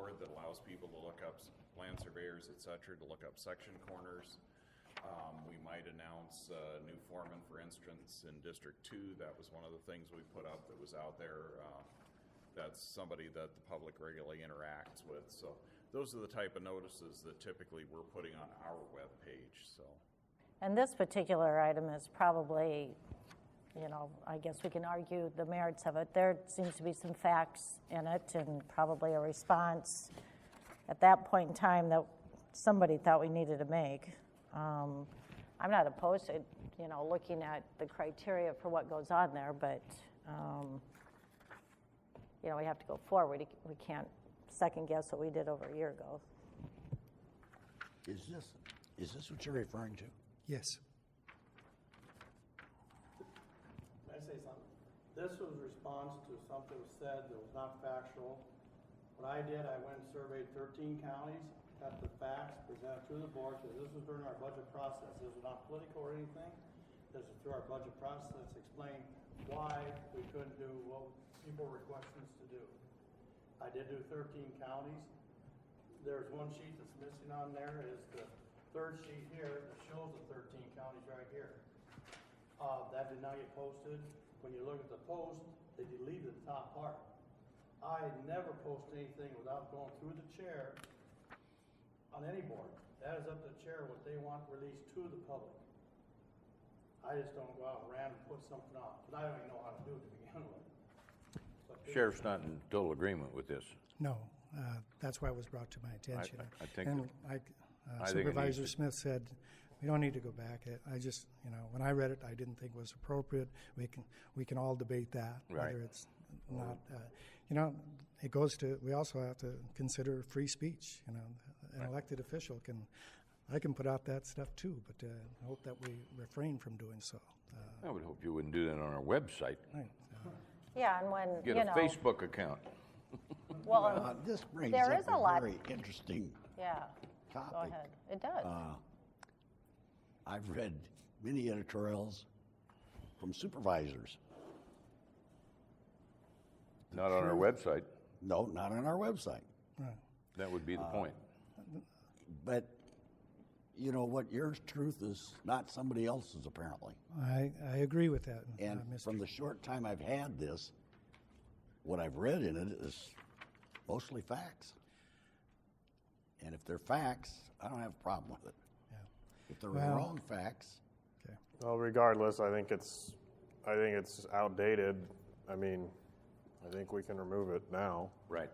allows people to look up, s- land surveyors, et cetera, to look up section corners. Um, we might announce a new foreman, for instance, in District Two, that was one of the things we put up that was out there. Uh, That's somebody that the public regularly interacts with, so those are the type of notices that typically we're putting on our webpage, so. And this particular item is probably, you know, I guess we can argue the merits of it. There seems to be some facts in it and probably a response at that point in time that somebody thought we needed to make. Um, I'm not opposed to, you know, looking at the criteria for what goes on there, but, um, you know, we have to go forward. We can't second guess what we did over a year ago. Is this, is this what you're referring to? Yes. Can I say something? This was response to something was said that was not factual. What I did, I went and surveyed thirteen counties, got the facts, presented to the board, because this was during our budget process. This was not political or anything. This was through our budget process, explained why we couldn't do what people were requesting us to do. I did do thirteen counties. There's one sheet that's missing on there, is the third sheet here that shows the thirteen counties right here. Uh, that did not get posted. When you look at the post, they deleted the top part. I never post anything without going through the chair on any board. That is up to the chair what they want released to the public. I just don't go out and random put something on, because I don't even know how to do it to begin with. But they- Sheriff's not in total agreement with this. No, uh, that's why it was brought to my attention. I think And that- like uh, I think it Supervisor needs to- Smith said, we don't need to go back. I- I just, you know, when I read it, I didn't think it was appropriate. We can, we can all debate that. Right. Whether it's not, uh, you know, it goes to, we also have to consider free speech, you know. An elected official can, I can put out that stuff too, but uh, I hope that we refrain from doing so. Uh, I would hope you wouldn't do that on our website. right, uh, Yeah, and when, you Get a know. Facebook account. well, Uh, This brings There up is a lot- a very interesting Yeah. Go topic. ahead. It does. uh, I've read many editorials from supervisors. Not on our website. No, not on our website. That would be the Uh, point. But you know what? Your truth is not somebody else's, apparently. I, I agree with that, uh, And Mr. from the short time I've had this, what I've read in it is mostly facts. And if they're facts, I don't have a problem with it. Yeah. If they're Well- wrong facts, Okay. Well, regardless, I think it's, I think it's outdated. I mean, I think we can remove it now, Right.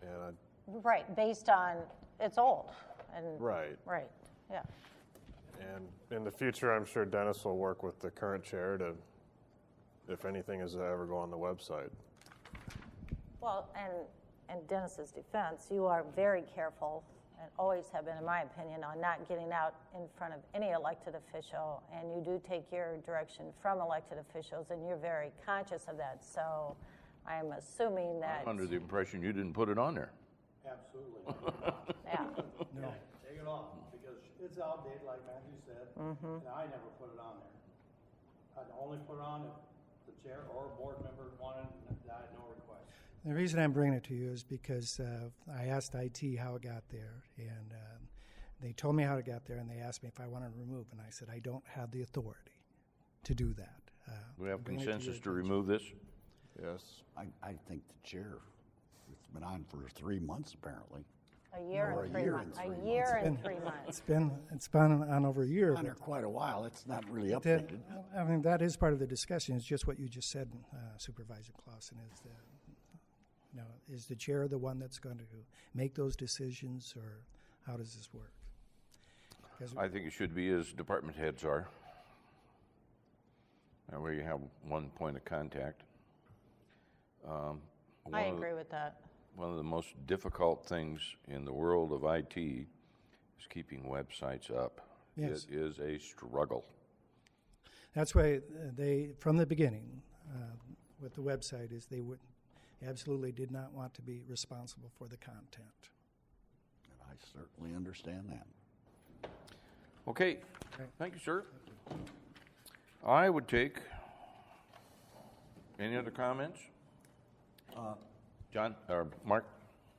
and I, Right, based on, it's old and. Right. Right, yeah. and in the future, I'm sure Dennis will work with the current chair to, if anything is to ever go on the website. Well, and, and Dennis's defense, you are very careful and always have been, in my opinion, on not getting out in front of any elected official. And you do take your direction from elected officials and you're very conscious of that. So I'm assuming that. I'm under the impression you didn't put it on there. Absolutely. Yeah. Yeah, Take it off, because it's outdated, like Matthew said, and I never put it on there. I'd only put it on if the chair or a board member wanted, and I had no request. The reason I'm bringing it to you is because uh, I asked IT how it got there, and um, they told me how it got there, and they asked me if I wanted to remove, and I said I don't have the authority to do that. Uh, We have I'm bringing it to your consensus to attention. remove this? Yes. I, I think the chair, it's been on for three months apparently. A year Or and a three year months. and three A year It's and been- three months. It's been it's been on over a year. On there but quite a while. It's not really that- updated. I mean that is part of the discussion. It's just what you just said, uh, Supervisor Clausen. Is the you know is the chair the one that's going to make those decisions, or how does this work? 'Cause- I think it should be as department heads are. That way you have one point of contact. Um, one I of the- agree with that. One of the most difficult things in the world of IT is keeping websites up. Yes. It is a struggle. That's why uh, they, from the beginning, uh, with the website, is they would absolutely did not want to be responsible for the content. And I certainly understand that. Okay, thank you, sir. I would take, any other comments? John, or Mark?